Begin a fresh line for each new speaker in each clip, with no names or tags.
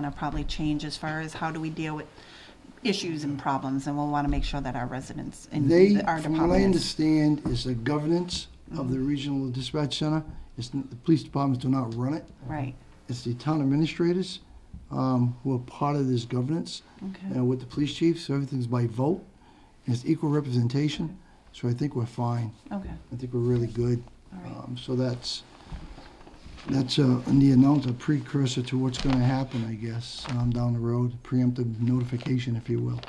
going to probably change as far as how do we deal with issues and problems, and we'll want to make sure that our residents and
They,
the- our
from what I
department is. Mm-hmm.
understand, is the governance of the regional dispatch center. It's, n- the police departments do not run it.
Right,
It's the town administrators um, who are part of this governance
okay,
and with the police chief, so everything's by vote. It's equal representation, so I think we're fine.
okay,
I think we're really good.
all right,
Um, So that's, that's uh, in the announcement, a precursor to what's going to happen, I guess, um, down the road, preemptive notification, if you will.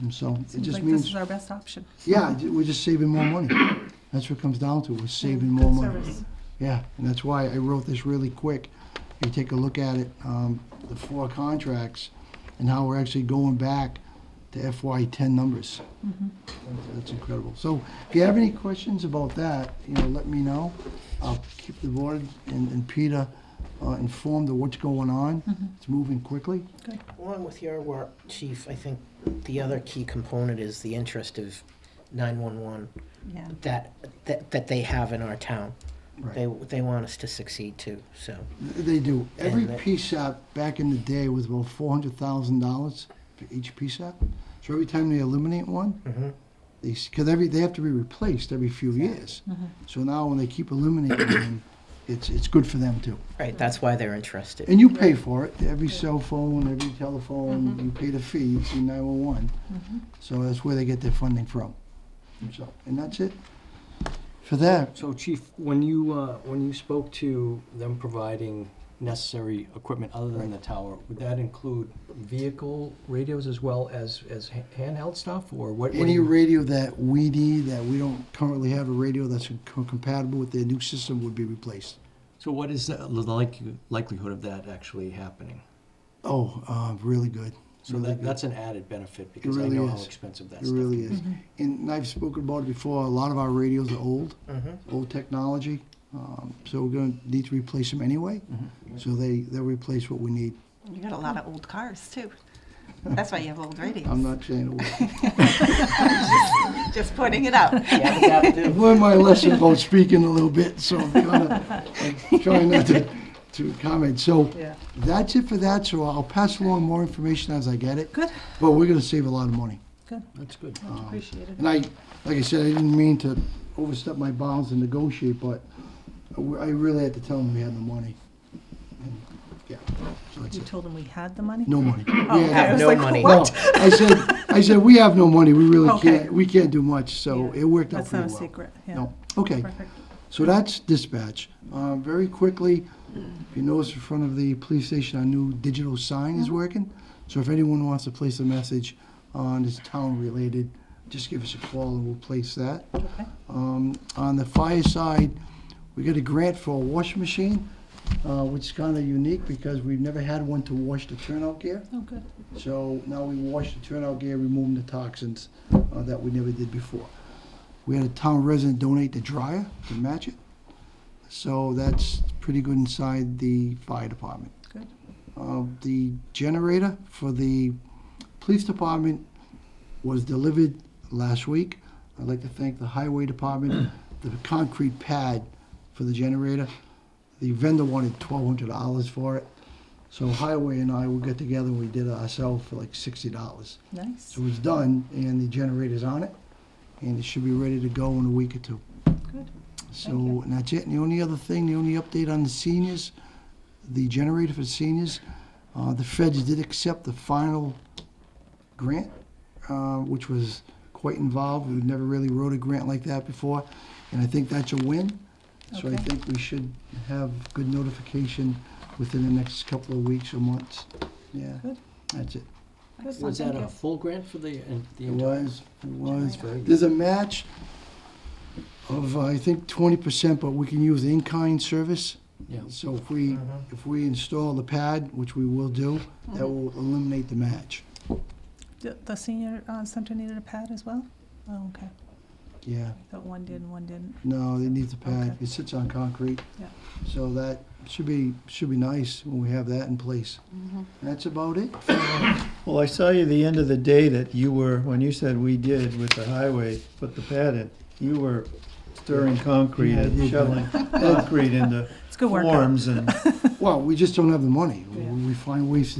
And so it
Mm-hmm. Seems
just
like this
means,
is our best option.
yeah, ju- we're just saving more money. That's what it comes down to, we're saving more
Good
money.
service.
Yeah, and that's why I wrote this really quick. You take a look at it, um, the four contracts and how we're actually going back to FY ten numbers. That's incredible. So if you have any questions about that, you know, let me know. I'll keep the board and, and Peter uh, informed of what's going on. It's moving quickly.
Along with your work, Chief, I think the other key component is the interest of 911
yeah,
that, that, that they have in our town.
Right.
They, they want us to succeed too, so.
They do. Every
And that-
PSAP back in the day was about four hundred thousand dollars for each PSAP. So every time they eliminate one,
mhm.
these, because every, they have to be replaced every few years. So now when they keep eliminating them, it's, it's good for them too.
Right, that's why they're interested.
And you pay for it, every cell phone, every telephone, you pay the fee, it's in 911. So that's where they get their funding from. So, and that's it for that.
So Chief, when you, uh, when you spoke to them providing necessary equipment other than the tower, would that include vehicle radios as well as, as ha- handheld stuff, or what? what do
Any
you-
radio that we need, that we don't currently have a radio that's co- compatible with their new system would be replaced.
So what is the like- likelihood of that actually happening?
Oh, uh, really good.
So
Really
that,
good.
that's an added benefit, because I
really
know how
is.
expensive that
It
stuff
really
is.
is. And I've spoken about it before, a lot of our radios are old.
Mhm.
Mm-hmm.
old technology, um, so we're going to need to replace them anyway.
Mm-hmm.
So they, they'll replace what we need.
you got a lot of old cars, too. That's why you have old radios.
I'm not saying, a word.
Just pointing it out.
Yeah, but that
I've
too.
learned my lesson about speaking a little bit, so I'm gonna, I'm trying not to, to comment. So
Yeah.
that's it for that, so I'll pass along more information as I get it.
Good.
But we're going to save a lot of money. Um,
Good,
That's good.
much appreciated.
And I, like I said, I didn't mean to overstep my bounds and negotiate, but I really had to tell them we had no money. And, Yeah, so that's
You
it.
told them we had the money?
No money.
Oh,
We
okay,
had
I
have
was
no
like,
money.
No,
what?
I said, I said, we have no money, we really
Okay.
can't, we can't do much, so
Yeah.
it worked out
That's
pretty
not a
well.
secret, yeah.
No, okay,
Perfect.
so that's dispatch. Uh, very quickly, if you notice in front of the police station, our new digital sign is working. So if anyone wants to place a message on, it's town-related, just give us a call and we'll place that.
Okay.
Um, On the fire side, we got a grant for a washing machine, uh, which is kind of unique because we've never had one to wash the turnout gear.
Oh, good.
So now we wash the turnout gear, removing the toxins uh, that we never did before. We had a town resident donate the dryer to match it. So that's pretty good inside the fire department.
Good.
Uh, The generator for the police department was delivered last week. I'd like to thank the highway department, the concrete pad for the generator. The vendor wanted twelve hundred dollars for it. So Highway and I, we got together, we did it ourselves for like sixty dollars.
Nice,
So it was done, and the generator's on it, and it should be ready to go in a week or two.
good.
So,
Thank you.
and that's it. And the only other thing, the only update on the seniors, the generator for seniors, uh, the feds did accept the final grant, uh, which was quite involved. We've never really wrote a grant like that before, and I think that's a win. So I
Okay.
think we should have good notification within the next couple of weeks or months. Yeah,
Good.
that's it.
Excellent,
Was that
thank
a
you.
full grant for the, and the
It
entire?
was, it was.
very
There's a match of, uh, I think, twenty percent, but we can use in-kind service.
Yeah.
So if we,
Mm-hmm.
if we install the pad, which we will do, that will eliminate the match.
The- The senior uh, center needed a pad as well? Oh, okay.
Yeah,
I thought one did and one didn't.
no, they need the pad.
Okay.
It sits on concrete.
Yeah.
So that should be, should be nice when we have that in place.
Mm-hmm.
That's about it.
Well, I saw you the end of the day that you were, when you said we did with the highway, put the pad in, you were stirring concrete
Yeah,
and shoveling concrete into
It's good work.
forms and
Well, we just don't have the money. We we find ways to